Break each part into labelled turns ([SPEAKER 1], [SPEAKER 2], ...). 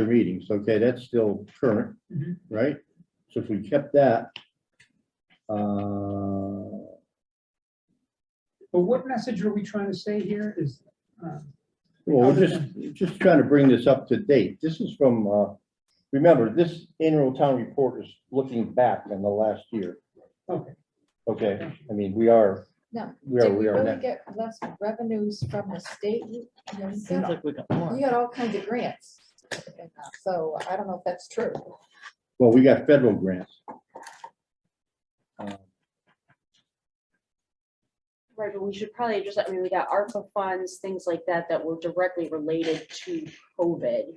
[SPEAKER 1] the meetings, okay, that's still current,
[SPEAKER 2] Mhm.
[SPEAKER 1] right? So if we kept that. uh,
[SPEAKER 2] But what message are we trying to say here is, um,
[SPEAKER 1] Well, we're just, just trying to bring this up to date. This is from, uh, remember, this annual town report is looking back on the last year,
[SPEAKER 2] okay,
[SPEAKER 1] okay? I mean, we are,
[SPEAKER 3] No,
[SPEAKER 1] we are,
[SPEAKER 3] Did we
[SPEAKER 1] we are.
[SPEAKER 3] really
[SPEAKER 1] net-
[SPEAKER 3] get less revenues from the state? You you know, you
[SPEAKER 4] Seems
[SPEAKER 3] got-
[SPEAKER 4] like we got more.
[SPEAKER 3] you got all kinds of grants. and, uh, So I don't know if that's true.
[SPEAKER 1] Well, we got federal grants. Uh,
[SPEAKER 5] Right, but we should probably just, I mean, we got ARPA funds, things like that, that were directly related to COVID.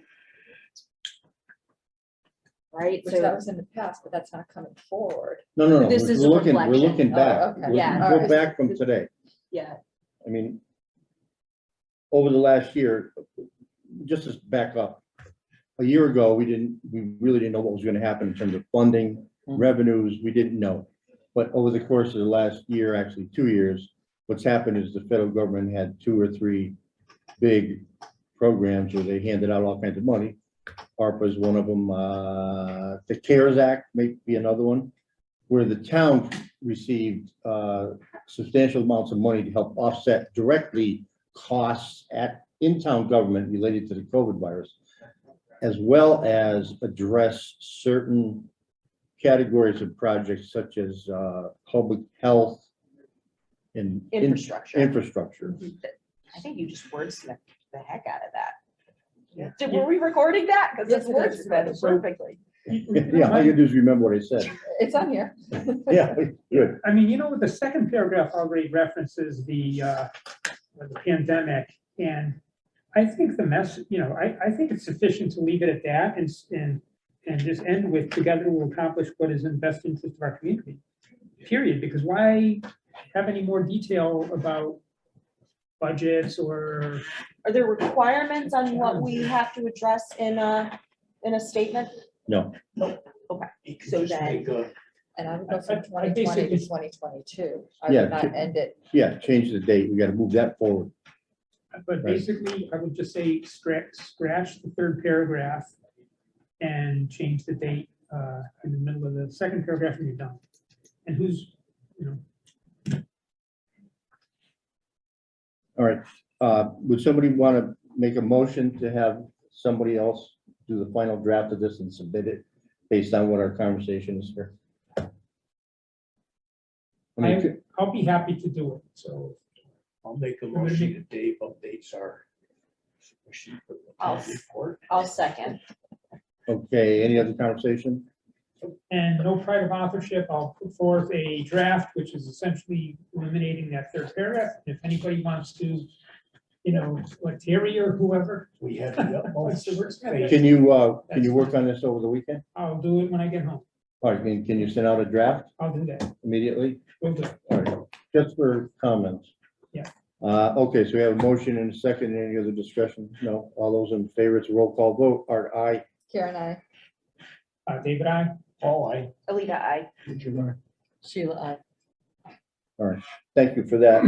[SPEAKER 5] Right,
[SPEAKER 3] Which that
[SPEAKER 5] so,
[SPEAKER 3] was in the past, but that's not coming forward.
[SPEAKER 1] No, no, no,
[SPEAKER 5] This
[SPEAKER 1] we're
[SPEAKER 5] is a
[SPEAKER 1] looking, we're
[SPEAKER 5] reflection.
[SPEAKER 1] looking
[SPEAKER 3] Oh,
[SPEAKER 1] back.
[SPEAKER 3] okay.
[SPEAKER 1] We're-
[SPEAKER 5] Yeah.
[SPEAKER 1] Go
[SPEAKER 3] Alright.
[SPEAKER 1] back from today.
[SPEAKER 5] yeah,
[SPEAKER 1] I mean, over the last year, just to back up, a year ago, we didn't, we really didn't know what was gonna happen in terms of funding,
[SPEAKER 4] Mhm.
[SPEAKER 1] revenues, we didn't know. But over the course of the last year, actually two years, what's happened is the federal government had two or three big programs where they handed out all kinds of money. ARPA is one of them, uh, the CARES Act may be another one, where the town received, uh, substantial amounts of money to help offset directly costs at in-town government related to the COVID virus, as well as address certain categories of projects such as uh, public health and in-
[SPEAKER 5] infrastructure.
[SPEAKER 1] infrastructure.
[SPEAKER 6] I think you just wordsmithed the heck out of that.
[SPEAKER 2] Yeah.
[SPEAKER 6] Did, were we recording that? Because
[SPEAKER 3] Yes,
[SPEAKER 6] it's
[SPEAKER 3] it
[SPEAKER 6] wordsmithed
[SPEAKER 3] is.
[SPEAKER 6] perfectly.
[SPEAKER 1] Yeah, all you do is remember what I said.
[SPEAKER 3] It's on here.
[SPEAKER 1] Yeah, good.
[SPEAKER 2] I mean, you know, what the second paragraph already references the, uh, the pandemic, and I think the mess, you know, I, I think it's sufficient to leave it at that and, s- and, and just end with, together we'll accomplish what is in the best interest of our community, period, because why have any more detail about budgets or
[SPEAKER 5] Are there requirements on what we have to address in a, in a statement?
[SPEAKER 1] No,
[SPEAKER 5] So then,
[SPEAKER 3] And I would
[SPEAKER 2] I-
[SPEAKER 3] go
[SPEAKER 2] I-
[SPEAKER 3] from
[SPEAKER 2] I
[SPEAKER 3] twenty twenty
[SPEAKER 2] basically-
[SPEAKER 3] to twenty twenty-two. I
[SPEAKER 1] Yeah,
[SPEAKER 3] would not
[SPEAKER 1] to-
[SPEAKER 3] end it.
[SPEAKER 1] yeah, change the date. We got to move that forward.
[SPEAKER 2] But
[SPEAKER 1] Right.
[SPEAKER 2] basically, I would just say scratch, scratch the third paragraph and change the date uh, in the middle of the second paragraph and you're done. And who's, you know,
[SPEAKER 1] All right. Uh, Would somebody want to make a motion to have somebody else do the final draft of this and submit it based on what our conversation is here? I mean,
[SPEAKER 2] I- I'll be happy to do it, so.
[SPEAKER 7] I'll make a
[SPEAKER 2] gonna
[SPEAKER 7] motion that Dave updates our. sheet for the
[SPEAKER 5] I'll
[SPEAKER 7] town
[SPEAKER 5] s-
[SPEAKER 7] report.
[SPEAKER 5] I'll second.
[SPEAKER 1] Okay, any other conversation?
[SPEAKER 2] And no private authorship, I'll put forth a draft, which is essentially eliminating that third paragraph. If anybody wants to, you know, like Terry or whoever,
[SPEAKER 7] We have the utmost.
[SPEAKER 2] What's the worst thing?
[SPEAKER 7] faith.
[SPEAKER 1] Can you, uh, can you work on this over the weekend?
[SPEAKER 2] I'll do it when I get home.
[SPEAKER 1] All right, can can you send out a draft
[SPEAKER 2] I'll do that.
[SPEAKER 1] immediately?
[SPEAKER 2] We'll do it.
[SPEAKER 1] All right, just for comments.
[SPEAKER 2] Yeah.
[SPEAKER 1] Uh, okay, so we have a motion and a second. Any other discussion? No, all those in favor, it's a roll call vote. Art, aye.
[SPEAKER 3] Karen, I,
[SPEAKER 2] Uh, David, I.
[SPEAKER 7] Paul, I.
[SPEAKER 5] Alita, I,
[SPEAKER 3] Sheila, I.
[SPEAKER 1] Thank you for that.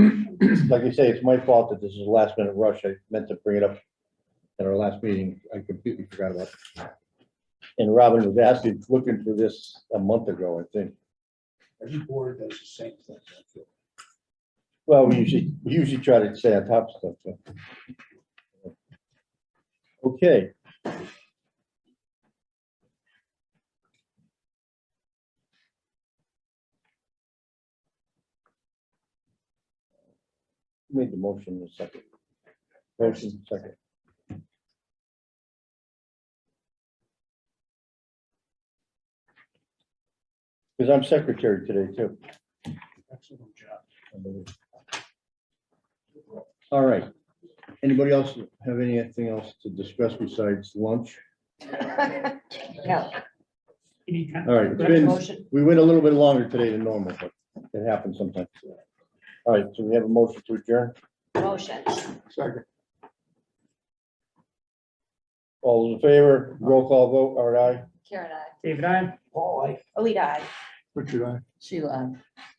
[SPEAKER 1] Like I say, it's my fault that this is a last minute rush. I meant to bring it up at our last meeting. I completely forgot about it. And Robin was asking, looking for this a month ago, I think.
[SPEAKER 7] Every board does the same thing. I feel.
[SPEAKER 1] Well, we usually, we usually try to stay on top of stuff. so. Okay. Made the motion in a second. Motion second. Because I'm secretary today too.
[SPEAKER 7] Excellent job.
[SPEAKER 1] I believe. All right. Anybody else have anything else to discuss besides lunch?
[SPEAKER 5] no,
[SPEAKER 2] Any kind-
[SPEAKER 1] All right, it's been-
[SPEAKER 5] motion,
[SPEAKER 1] We went a little bit longer today than normal, but it happens sometimes. All right, so we have a motion to adjourn.
[SPEAKER 5] motion.
[SPEAKER 7] Second.
[SPEAKER 1] All those in favor, roll call vote, Art, aye.
[SPEAKER 3] Karen, I.
[SPEAKER 2] David, I.
[SPEAKER 7] Paul, I.
[SPEAKER 5] Alita, I.
[SPEAKER 7] Richard, I.
[SPEAKER 3] Sheila, I.